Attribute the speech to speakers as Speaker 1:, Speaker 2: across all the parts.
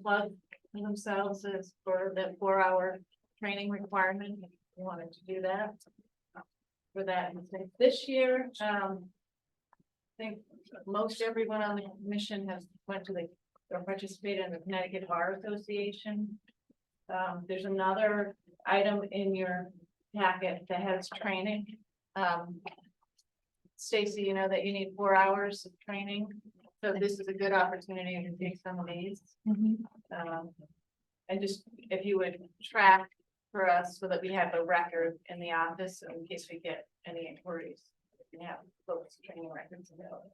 Speaker 1: plug themselves as for that four-hour training requirement, if you wanted to do that. For that, I think this year, um. I think most everyone on the commission has went to the, or participated in the Connecticut Bar Association. Um, there's another item in your packet that has training, um. Stacy, you know that you need four hours of training, so this is a good opportunity to take some of these. Um, and just if you would track for us so that we have a record in the office in case we get any inquiries. We can have folks training records available.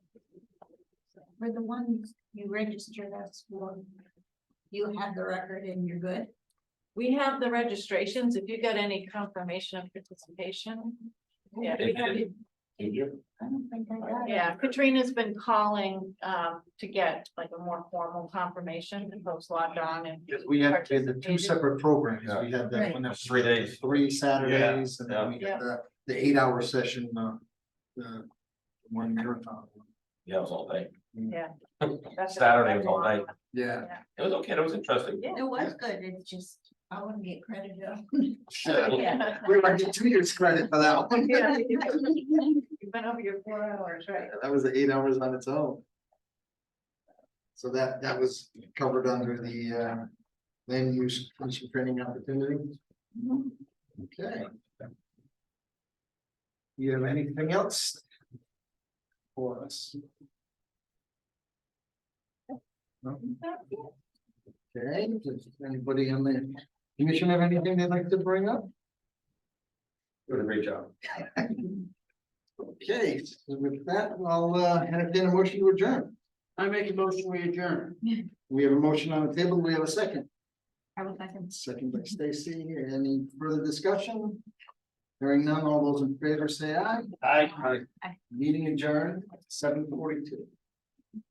Speaker 2: For the ones you registered us for, you have the record and you're good?
Speaker 1: We have the registrations. If you got any confirmation of participation. Yeah, we have,
Speaker 3: Did you?
Speaker 2: I don't think I got it.
Speaker 1: yeah, Katrina's been calling, um, to get like a more formal confirmation and folks logged on and.
Speaker 4: Because we had, we had the two
Speaker 1: Participated.
Speaker 4: separams. programs, we had that
Speaker 2: Right.
Speaker 4: one that was
Speaker 3: Three days.
Speaker 4: Three Saturdays, and then we
Speaker 1: Yeah.
Speaker 4: had the, the eight hour session, uh, the one marathon.
Speaker 3: Yeah, it was all day.
Speaker 1: that's-
Speaker 3: Saturday was all night.
Speaker 4: Yeah.
Speaker 3: It was okay, it was interesting.
Speaker 1: Yeah.
Speaker 2: It was good, it's just, I wouldn't get credit.
Speaker 1: Yeah.
Speaker 4: We might get two years credit for that one.
Speaker 1: Yeah, You've been over your four hours, right?
Speaker 4: That was eight hours on its own. So that, that was covered under the, uh, land use commission training opportunities. Okay. You have anything else? For us? No? Okay, does anybody on the commission have anything they'd like to bring up?
Speaker 3: Doing a great job.
Speaker 4: Okay, so with that, I'll uh entertain a motion to adjourn. I make a motion, we adjourn. We have a motion on the table, we have a second,
Speaker 2: I would like to.
Speaker 4: second by Stacy, any further discussion? Hearing none, all those in favor say aye.
Speaker 3: Hi.
Speaker 4: Meeting adjourned, seven forty-two.